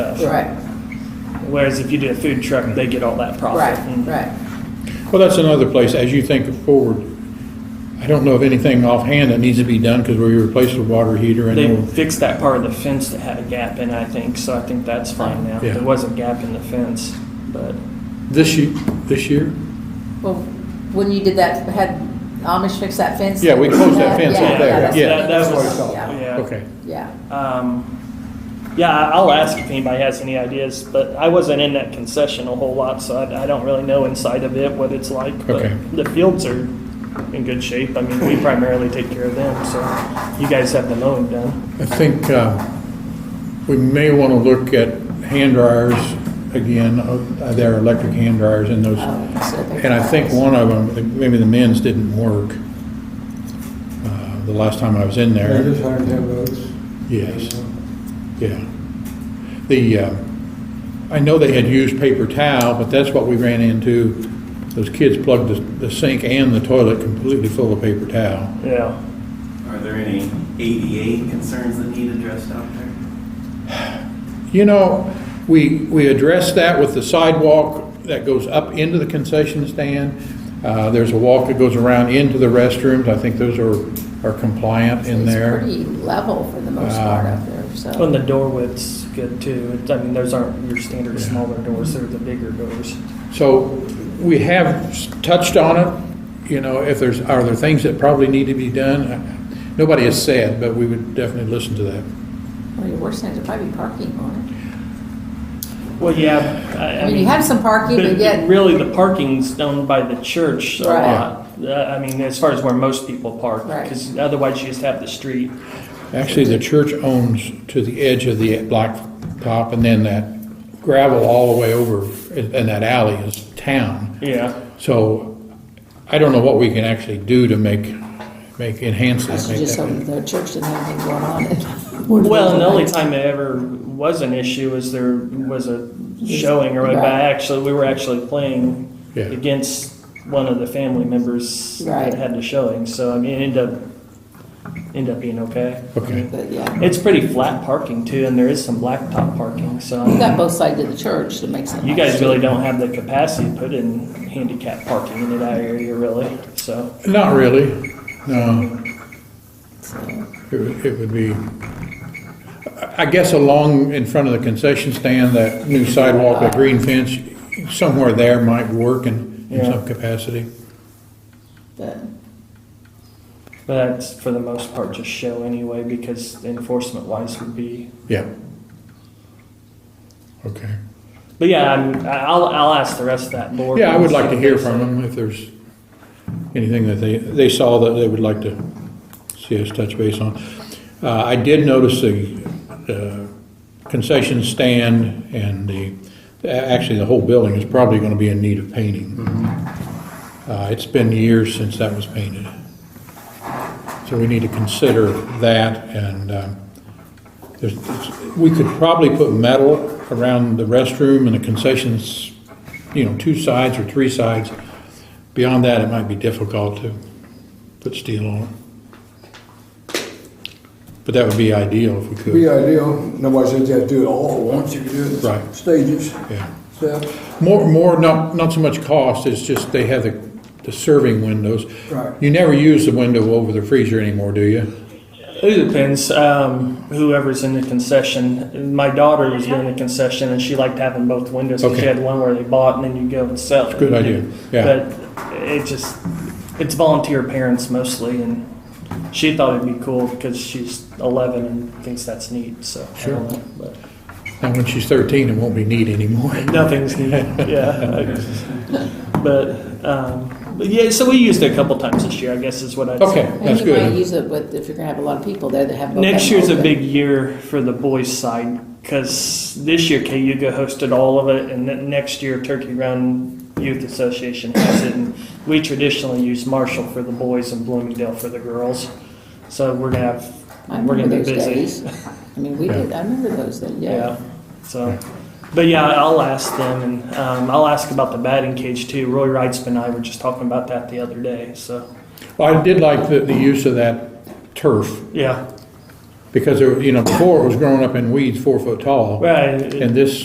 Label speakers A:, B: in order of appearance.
A: stuff.
B: Right,
A: Whereas if you did a food truck, they get all that profit. Mm.
B: right,
A: And
B: right.
C: Well, that's another place, as you think forward, I don't know of anything offhand that needs to be done because we replaced the water heater and
A: They
C: we'll-
A: fixed that part of the fence that had a gap in, I think, so I think that's fine now.
C: Yeah.
A: There was a gap in the fence, but
C: this year, this year?
B: Well, when you did that, had Amish fix that fence?
C: Yeah, we closed that fence
B: Yeah,
C: up
B: yeah,
C: there,
B: that's-
C: yeah.
A: That, that
B: that's-
A: was,
B: Yeah,
A: yeah.
C: Okay.
B: yeah.
A: Um, yeah, I- I'll ask if anybody has any ideas, but I wasn't in that concession a whole lot, so I, I don't really know inside of it what it's like. But
C: Okay.
A: The fields are in good shape. I mean, we primarily take care of them, so you guys have the mowing done.
C: I think uh, we may want to look at hand dryers again, uh, their electric hand dryers and those.
B: Oh, so they're-
C: And I think one of them, maybe the men's didn't work uh, the last time I was in
D: They're
C: there.
D: just hard to have votes.
C: Yes. Yeah. The, uh, I know they had used paper towel, but that's what we ran into. Those kids plugged the- the sink and the toilet completely full of paper towel.
A: Yeah.
E: Are there any ADA concerns that need addressed out there?
C: You know, we, we addressed that with the sidewalk that goes up into the concession stand. Uh, There's a walk that goes around into the restrooms. I think those are, are compliant in
B: It's
C: there.
B: pretty level for the most part
C: Um,
B: up there, so.
A: When the door width's good too. It's- I mean, those aren't your standard smaller doors, they're the bigger doors.
C: So we have s- touched on it, you know, if there's, are there things that probably need to be done? Nobody has said, but we would definitely listen to that.
B: Well, your worst thing is probably parking on
A: Well, yeah. I-
B: it. I mean, you have some parking, but yet,
A: Really, the parking's owned by the church a
B: Right.
A: lot. Uh, I mean, as far as where most people park,
B: Right.
A: because otherwise you just have the street.
C: Actually, the church owns to the edge of the blacktop and then that gravel all the way over in in that alley is town.
A: Yeah.
C: So I don't know what we can actually do to make, make, enhance
B: I
C: that.
B: should
C: make
B: just
C: that-
B: hope the church didn't have anything going on.
A: Well, and the only time it ever was an issue is there was a showing or whatever.
B: Right.
A: Actually, we were actually playing
C: Yeah.
A: against one of the family members
B: Right.
A: that had the showing. So I mean, it ended up ended up being okay.
C: Okay.
B: But, yeah.
A: It's pretty flat parking too, and there is some blacktop parking. So
B: You've got both sides of the church, so it makes it.
A: you
B: nice.
A: guys really don't have the capacity to put in handicap parking in that area, really. So
C: Not really, no.
B: So-
C: It would- it would be, I- I guess along in front of the concession stand, that new sidewalk, that green fence, somewhere there might work in, in
A: Yeah.
C: some capacity.
B: But,
A: but that's for the most part just show anyway, because enforcement wise would be
C: Yeah. Okay.
A: But yeah, I'm, I'll, I'll ask the rest of that board.
C: Yeah, I would like to hear from them if there's anything that they, they saw that they would like to see us touch base on. Uh, I did notice the uh, concession stand and the, actually, the whole building is probably going to be in need of painting. Uh, It's been years since that was painted. So we need to consider that and um, there's, it's- we could probably put metal around the restroom and the concessions, you know, two sides or three sides. Beyond that, it might be difficult to put steel on. it. But that would be ideal if we
D: Be
C: could.
D: ideal, nobody says you have to do it all at once, you can do it in
C: Right.
D: stages,
C: Yeah.
D: steps.
C: More, more, not, not so much cost, it's just they have the, the serving windows.
D: Right.
C: You never use the window over the freezer anymore, do you?
A: It depends, um, whoever's in the concession. My daughter was doing the concession and she liked having both windows. 'cause She
C: Okay.
A: had one where they bought and then you go and sell. it.
C: Good idea, yeah.
A: But it just, it's volunteer parents mostly and she thought it'd be cool because she's eleven and thinks that's neat, so. I don't know, but
C: And when she's thirteen, it won't be neat anymore.
A: Nothing's neat, yeah. But, um, but yeah, so we used it a couple times this year, I guess is what I'd say.
C: Okay,
B: And
C: that's
B: you might
C: good.
B: use it with, if you're gonna have a lot of people there that have. both
A: Next
B: have
A: year's a
B: both.
A: big year for the boys' side because this year Cayuga hosted all of it, and then next year Turkey Run Youth Association has it. And we traditionally use Marshall for the boys and Bloomingdale for the girls, so we're gonna have
B: I
A: we're
B: remember
A: gonna be
B: those
A: busy.
B: days. I mean, we
C: Yeah.
B: did, I remember those days, yeah.
A: Yeah. So, but yeah, I'll ask them, and um, I'll ask about the batting cage too. Roy Wrightsman and I were just talking about that the other day. So
C: Well, I did like the, the use of that turf.
A: yeah,
C: Because, there were- you know, before it was growing up in weeds four foot tall.
A: Right.
C: And this